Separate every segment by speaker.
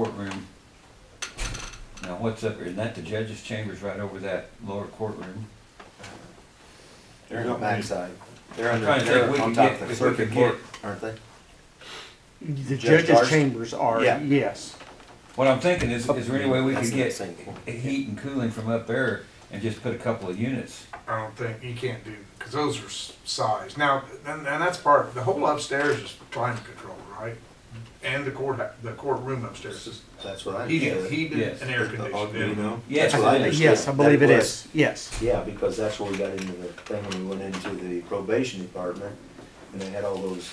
Speaker 1: courtroom. Now, what's up, isn't that the judge's chambers right over that lower courtroom?
Speaker 2: They're in the backside. They're
Speaker 1: I'm
Speaker 2: under,
Speaker 1: trying to think, we
Speaker 2: they're on
Speaker 1: could
Speaker 2: top
Speaker 1: get-
Speaker 2: of
Speaker 1: if we
Speaker 2: the circuit
Speaker 1: could
Speaker 2: court,
Speaker 1: get-
Speaker 2: aren't they?
Speaker 3: The
Speaker 2: Judge
Speaker 3: judge's
Speaker 2: Darcy?
Speaker 3: chambers are,
Speaker 2: Yeah.
Speaker 3: yes.
Speaker 1: What I'm thinking is, is there any way we
Speaker 2: That's
Speaker 1: could
Speaker 2: in that
Speaker 1: get
Speaker 2: same court.
Speaker 1: heat and cooling from up there and just put a couple of units?
Speaker 4: I don't think you can't do because those are s- size. Now, and, and that's part. The whole upstairs is climate control, right? And the court, the courtroom upstairs is
Speaker 2: That's what I
Speaker 4: heated,
Speaker 2: understood.
Speaker 4: heated
Speaker 1: Yes.
Speaker 4: and air
Speaker 2: The Ogden, you
Speaker 4: conditioned.
Speaker 2: know?
Speaker 1: Yes,
Speaker 2: That's what I
Speaker 1: it is.
Speaker 2: understood.
Speaker 3: Yes, I
Speaker 2: that
Speaker 3: believe it
Speaker 2: was.
Speaker 3: is, yes.
Speaker 2: Yeah, because that's where we got into the thing when we went into the probation department, and they had all those,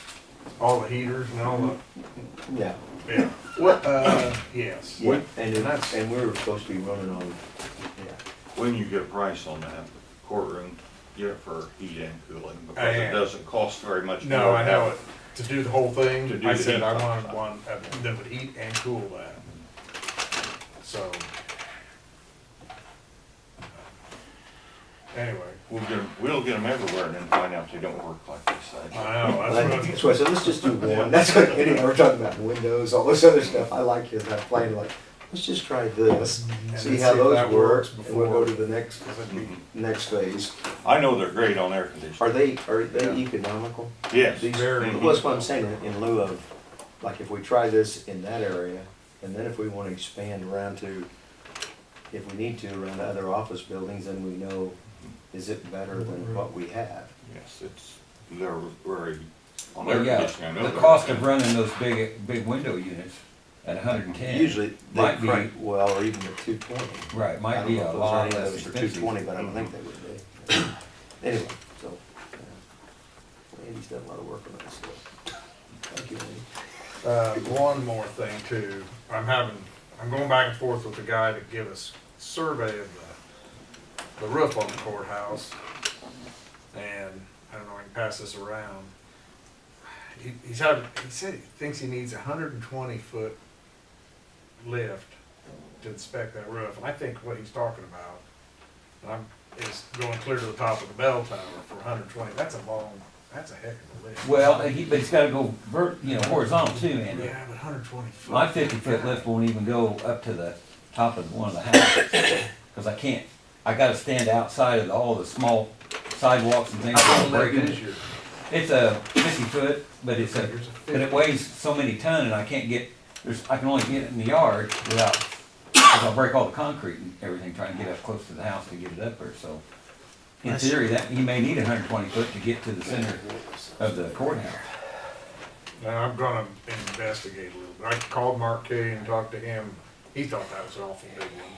Speaker 4: All the heaters and all
Speaker 2: yeah,
Speaker 4: the, yeah. What, uh, yes.
Speaker 2: yeah, and it, and we were supposed to be running on, yeah.
Speaker 5: When you get a price on that courtroom, get it for heat and cooling, because
Speaker 4: am.
Speaker 5: it doesn't cost very much.
Speaker 4: Oh, No, I know it. To do the whole
Speaker 5: To
Speaker 4: thing,
Speaker 5: do
Speaker 4: I
Speaker 5: the
Speaker 4: said
Speaker 5: heat
Speaker 4: I wanted
Speaker 5: pump.
Speaker 4: one of- that would heat and cool that. So. Anyway,
Speaker 5: We'll get, 'em- we'll get them everywhere and then find out they don't work like they say.
Speaker 4: I know, that's what. I'm-
Speaker 2: That's why I said, let's just do one, that's what, anyway, we're talking about windows, all this other stuff, I like your, that plan, like, let's just try this,
Speaker 4: And
Speaker 2: see
Speaker 4: then
Speaker 2: how
Speaker 4: see if
Speaker 2: those
Speaker 4: that
Speaker 2: work,
Speaker 4: works
Speaker 2: and we'll go
Speaker 4: before-
Speaker 2: to the next,
Speaker 4: Mm-hmm.
Speaker 2: next phase.
Speaker 5: I know they're great on air
Speaker 2: Are
Speaker 5: conditioning.
Speaker 2: they, are they economical?
Speaker 5: Yes.
Speaker 2: These-
Speaker 4: Very.
Speaker 2: Well, that's what I'm saying, in lieu of, like, if we try this in that area, and then if we wanna expand around to, if we need to, around to other office buildings, then we know, is it better than what we have?
Speaker 5: Yes, it's, they're very, on air
Speaker 1: Well, yeah,
Speaker 5: conditioning, I know.
Speaker 1: the
Speaker 5: they're
Speaker 1: cost
Speaker 5: good.
Speaker 1: of running those big, big window units at hundred and ten.
Speaker 2: Usually, they
Speaker 1: Might be-
Speaker 2: crank well, or even at two twenty.
Speaker 1: Right,
Speaker 2: I
Speaker 1: might
Speaker 2: don't
Speaker 1: be
Speaker 2: know
Speaker 1: a
Speaker 2: if those
Speaker 1: lot
Speaker 2: are any
Speaker 1: less
Speaker 2: of those for two
Speaker 1: expensive.
Speaker 2: twenty, but I don't think they would be. Anyway, so, yeah. Andy's done a lot of work on that stuff. Thank you, Andy.
Speaker 4: Uh, one more thing too, I'm having, I'm going back and forth with the guy to give us survey of the, the roof on the courthouse. And, I don't know, I can pass this around. He, he's had, he said he thinks he needs a hundred and twenty foot lift to inspect that roof, and I think what he's talking about, and I'm, is going clear to the top of the bell tower for hundred and twenty, that's a long, that's a heck of a lift.
Speaker 1: Well, and he, but it's gotta go vert, you know, horizontal too, Andy.
Speaker 4: Yeah, but hundred and twenty foot.
Speaker 1: My fifty foot lift won't even go up to the top of one of the houses, cause I can't, I gotta stand outside of all the small sidewalks and things.
Speaker 4: How long
Speaker 1: breaking
Speaker 4: that
Speaker 1: it.
Speaker 4: is your-
Speaker 1: It's a fifty foot, but it's a,
Speaker 4: There's a
Speaker 1: but it
Speaker 4: 50.
Speaker 1: weighs so many ton and I can't get, there's, I can only get it in the yard without, cause I'll break all the concrete and everything trying to get up close to the house to get it up there, so. In
Speaker 3: That's-
Speaker 1: theory, that, he may need hundred twenty foot to get to the center of the courthouse.
Speaker 4: Now, I'm gonna investigate a little bit. I called Mark Kay and talked to him. He thought that was an awful big one.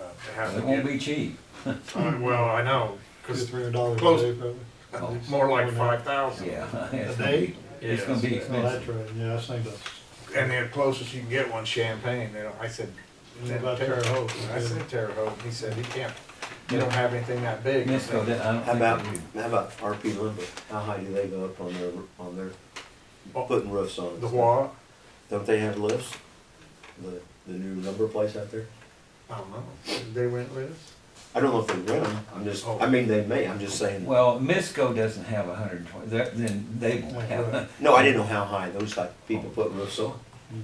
Speaker 4: Uh, It has to
Speaker 1: It won't be
Speaker 4: get,
Speaker 1: cheap.
Speaker 4: uh, well, I know, cause
Speaker 6: three hundred dollars
Speaker 4: Close.
Speaker 6: a day, probably.
Speaker 1: Oh,
Speaker 4: more like five thousand.
Speaker 1: Yeah.
Speaker 6: A
Speaker 1: it's gonna
Speaker 6: day?
Speaker 1: be- It's gonna be
Speaker 6: Oh, that's
Speaker 1: expensive.
Speaker 6: right, yeah, I think that's,
Speaker 4: And the closest you can get one Champagne, they don't, I said,
Speaker 6: What
Speaker 4: "Then
Speaker 6: Mm, about
Speaker 4: Terre
Speaker 6: Terre
Speaker 4: Haute.
Speaker 6: Haute?
Speaker 4: I said Terre Haute. He said he can't, they don't have anything that big. I
Speaker 1: Misco,
Speaker 4: said,
Speaker 1: that, I don't
Speaker 2: How
Speaker 1: think.
Speaker 2: about,
Speaker 1: that we-
Speaker 2: how about RP lumber? How high do they go up on their, on their, putting roofs on?
Speaker 4: Oh, The what?
Speaker 2: Don't they have lifts? The, the new lumber place out there?
Speaker 4: I don't know. Did They went with?
Speaker 2: I don't know if they rent them, I'm just, I mean, they may, I'm just saying.
Speaker 1: Well, Misco doesn't have hundred and twenty, then they won't have.
Speaker 2: No, I didn't know how high those type people put roofs on,
Speaker 6: mm-hmm,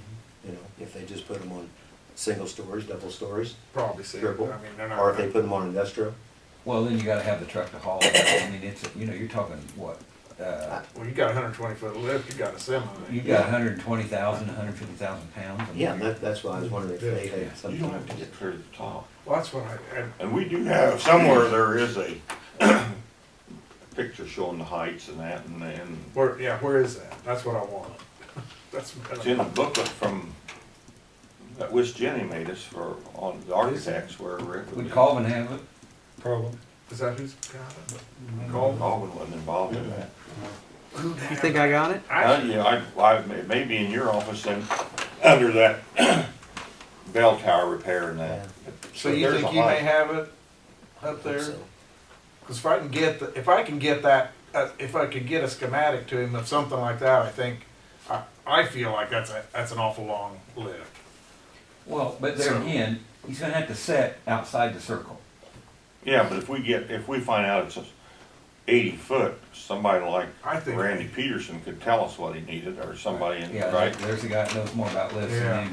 Speaker 2: you know, if they just put them on single stories, double stories,
Speaker 4: Probably see. I mean,
Speaker 2: Triple.
Speaker 4: they're not.
Speaker 2: or if they put them on industrial.
Speaker 1: Well, then you gotta have the truck to haul it. I mean, it's, you know, you're talking, what, uh,
Speaker 4: Well, you got a hundred and twenty foot lift, you got a semi.
Speaker 1: you've got hundred and twenty thousand, hundred and fifty thousand pounds. I mean,
Speaker 2: Yeah, that, that's why I was wondering if they had
Speaker 5: You don't have to
Speaker 2: something.
Speaker 5: get clear to the top.
Speaker 4: Well, that's what I, and
Speaker 5: And we do have, somewhere there is a picture showing the heights and that and, and
Speaker 4: Where, yeah, where is that? That's what I want. That's what
Speaker 5: It's
Speaker 4: I
Speaker 5: in a booklet from, that which Jenny made us for, on the architects where Rick.
Speaker 1: Would Colvin have it?
Speaker 6: probably.
Speaker 4: Is that who's got it?
Speaker 5: Col- Colvin wasn't involved in that.
Speaker 4: Who
Speaker 3: You
Speaker 4: the heck-
Speaker 3: think I got it?
Speaker 5: Uh,
Speaker 4: Actually,
Speaker 5: yeah, I, I, maybe in your office and under that bell tower repair and that.
Speaker 4: So you
Speaker 5: There's a
Speaker 4: think you may
Speaker 5: lot.
Speaker 4: have it up there?
Speaker 2: So,
Speaker 4: Cause if I can get, the- if I can get that, uh, if I could get a schematic to him of something like that, I think, I, I feel like that's a, that's an awful long lift.
Speaker 1: Well, but there
Speaker 4: So-
Speaker 1: again, he's gonna have to set outside the circle.
Speaker 5: Yeah, but if we get, if we find out it's a eighty foot, somebody like
Speaker 4: I think-
Speaker 5: Randy Peterson could tell us what he needed, or somebody, in
Speaker 1: Yeah,
Speaker 5: right?
Speaker 1: there's a guy that knows more about lifts than
Speaker 4: Yeah.
Speaker 1: anybody.